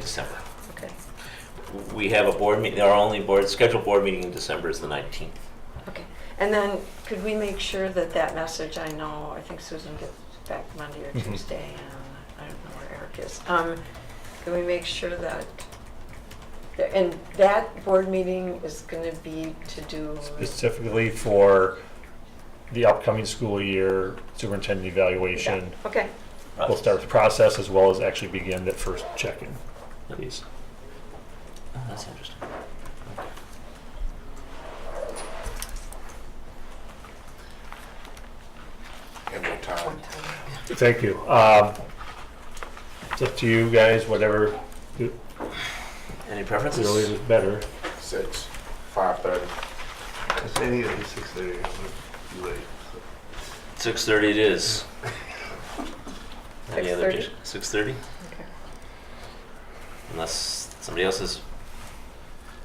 December. Okay, We have a board meeting, our only board, scheduled board meeting in December is the 19th. okay. And then could we make sure that that message, I know, I think Susan gets back Monday or Mhm. Tuesday, and I don't know where Eric is. Um, Can we make sure that, that- and that board meeting is going to be to do, specifically for the upcoming school year superintendent evaluation. okay, We'll start with the process as well as actually begin that first check-in. Please. Oh, that's interesting. in the town. Thank you. Um, It's up to you guys, whatever Any really preferences? is better. Six, five thirty. If any of these six thirty, I'm be late. 6:30 it is. Any other 6:30? dis- 6:30? Okay. Unless somebody else is,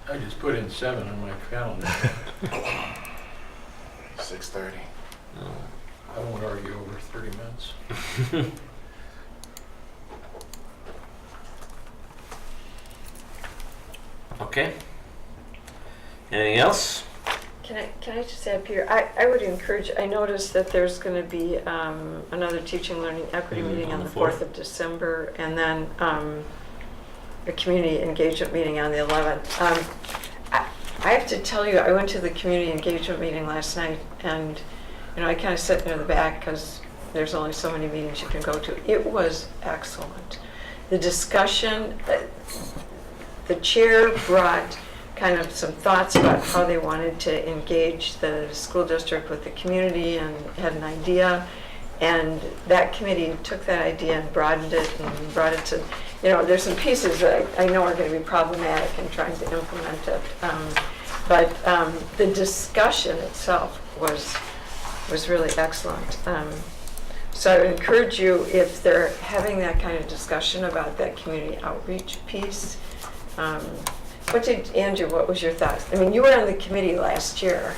I just put in seven on my calendar. Six thirty. oh, I won't argue over 30 minutes. okay. Anything else? Can I, can I just add, Peter, I, I would encourage, I noticed that there's going to be um, another teaching, learning, equity Mhm, meeting Mm-hmm. on the 4th of December, and then um, a community engagement meeting on the 11th. Um, I I have to tell you, I went to the community engagement meeting last night, and, you know, I kind of sat near the back because there's only so many meetings you can go to. It was excellent. The discussion, uh, the chair brought kind of some thoughts about how they wanted to engage the school district with the community and had an idea. And that committee took that idea and broadened it and brought it to, you know, there's some pieces that I I know are going to be problematic in trying to implement it. Um, But um, the discussion itself was, was really excellent. Um, so I would encourage you, if they're having that kind of discussion about that community outreach piece, um, what did, Andrew, what was your thoughts? I mean, you were on the committee last year.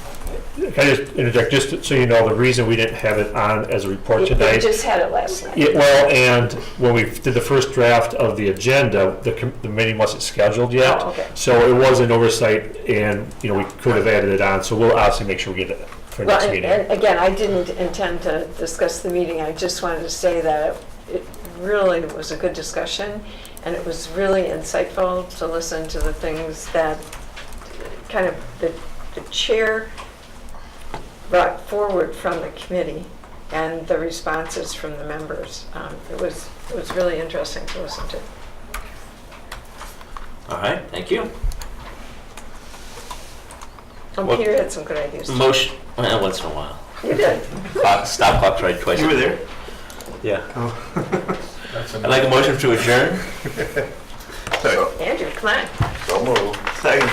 Can I just interject, just so you know, the reason we didn't have it on as a report You tonight you just had it last night. Yeah, well, and when we did the first draft of the agenda, the, com- the meeting wasn't scheduled yet. Oh, okay. So it was an oversight and, you know, we could have added it on, so we'll obviously make sure we get it for Well, next and- and meeting. again, I didn't intend to discuss the meeting, I just wanted to say that it it really was a good discussion, and it was really insightful to listen to the things that kind of the the chair brought forward from the committee and the responses from the members. Um, It was, it was really interesting to listen to. All right, thank you. And What- Peter had some good ideas. too. Motion, well, once in a while. You did. Clock- Stop clock tried twice. You were there? Yeah. That's I'd like a motion to adjourn. So, Andrew, come on. so move. Second.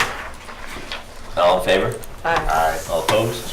All in favor? Bye. Aye. Uh, All opposed?